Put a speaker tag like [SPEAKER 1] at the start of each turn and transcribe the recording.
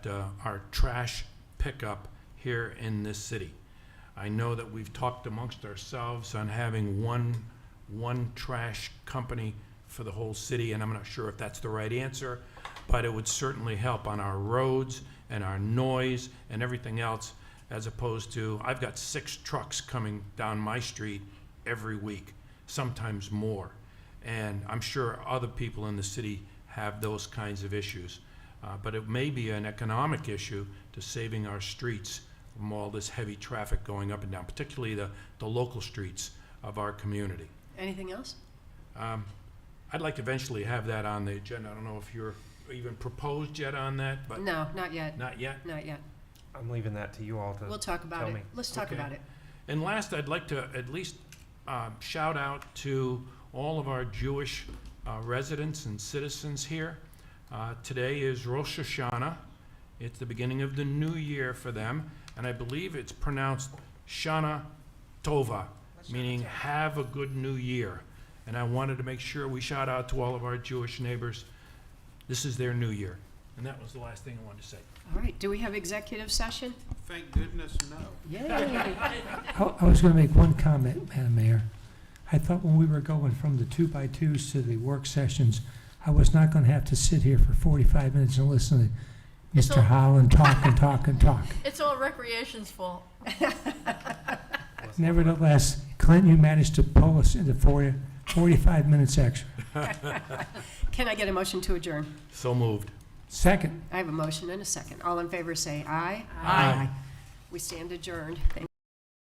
[SPEAKER 1] uh, our trash pickup here in this city. I know that we've talked amongst ourselves on having one, one trash company for the whole city, and I'm not sure if that's the right answer, but it would certainly help on our roads and our noise and everything else, as opposed to, I've got six trucks coming down my street every week, sometimes more. And I'm sure other people in the city have those kinds of issues. Uh, But it may be an economic issue to saving our streets from all this heavy traffic going up and down, particularly the, the local streets of our community.
[SPEAKER 2] Anything else?
[SPEAKER 1] Um, I'd like to eventually have that on the agenda. I don't know if you're even proposed yet on that,
[SPEAKER 3] Uh,
[SPEAKER 1] but
[SPEAKER 2] No, not yet,
[SPEAKER 1] not yet.
[SPEAKER 2] not yet.
[SPEAKER 3] I'm leaving that to you all to.
[SPEAKER 2] We'll talk about
[SPEAKER 3] uh, tell
[SPEAKER 2] it.
[SPEAKER 3] me.
[SPEAKER 2] Let's talk
[SPEAKER 1] Okay.
[SPEAKER 2] about it.
[SPEAKER 1] And last, I'd like to at least um, shout out to all of our Jewish uh, residents and citizens here. Uh, Today is Rosh Hashanah. It's the beginning of the new year for them, and I believe it's pronounced Shana Tova, meaning have a good new year. And I wanted to make sure we shout out to all of our Jewish neighbors. This is their new year. And that was the last thing I wanted to say.
[SPEAKER 2] All right, do we have executive session?
[SPEAKER 4] Thank goodness, no.
[SPEAKER 2] Yay.
[SPEAKER 5] I I was going to make one comment, Madam Mayor. I thought when we were going from the two-by-twos to the work sessions, I was not going to have to sit here for 45 minutes and listen to
[SPEAKER 6] It's all-
[SPEAKER 5] Mr. Howland talk and talk and talk.
[SPEAKER 6] It's all recreation's fault.
[SPEAKER 5] Nevertheless, Clint, you managed to pull us into 40 45 minutes extra.
[SPEAKER 2] Can I get a motion to adjourn?
[SPEAKER 1] So moved.
[SPEAKER 5] Second.
[SPEAKER 2] I have a motion and a second. All in favor say aye.
[SPEAKER 1] Aye.
[SPEAKER 2] We stand adjourned. Thank